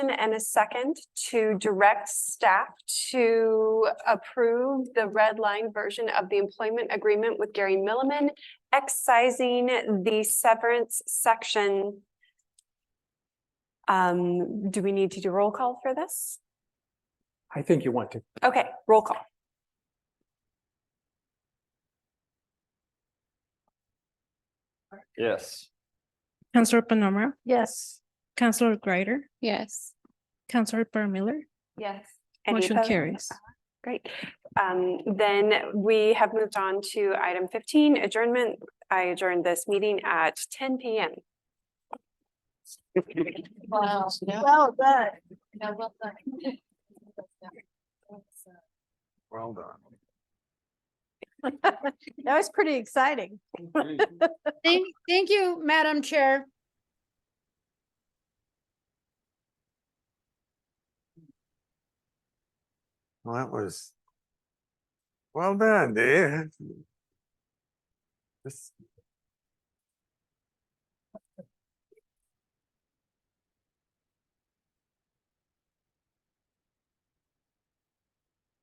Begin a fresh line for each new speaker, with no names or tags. and a second to direct staff to approve the red line version of the employment agreement with Gary Milliman, excising the severance section. Um, do we need to do roll call for this?
I think you want to.
Okay, roll call.
Yes.
Counselor Panoma,
Yes.
Counselor Greider,
Yes.
Counselor Per Miller,
Yes.
motion carries.
Great. Um, then we have moved on to item fifteen, adjournment. I adjourned this meeting at ten PM.
Wow. Well done. No, well done.
Well
That was pretty exciting.
done.
Thank, thank you, Madam Chair.
Well, that was. Well done, dude. This,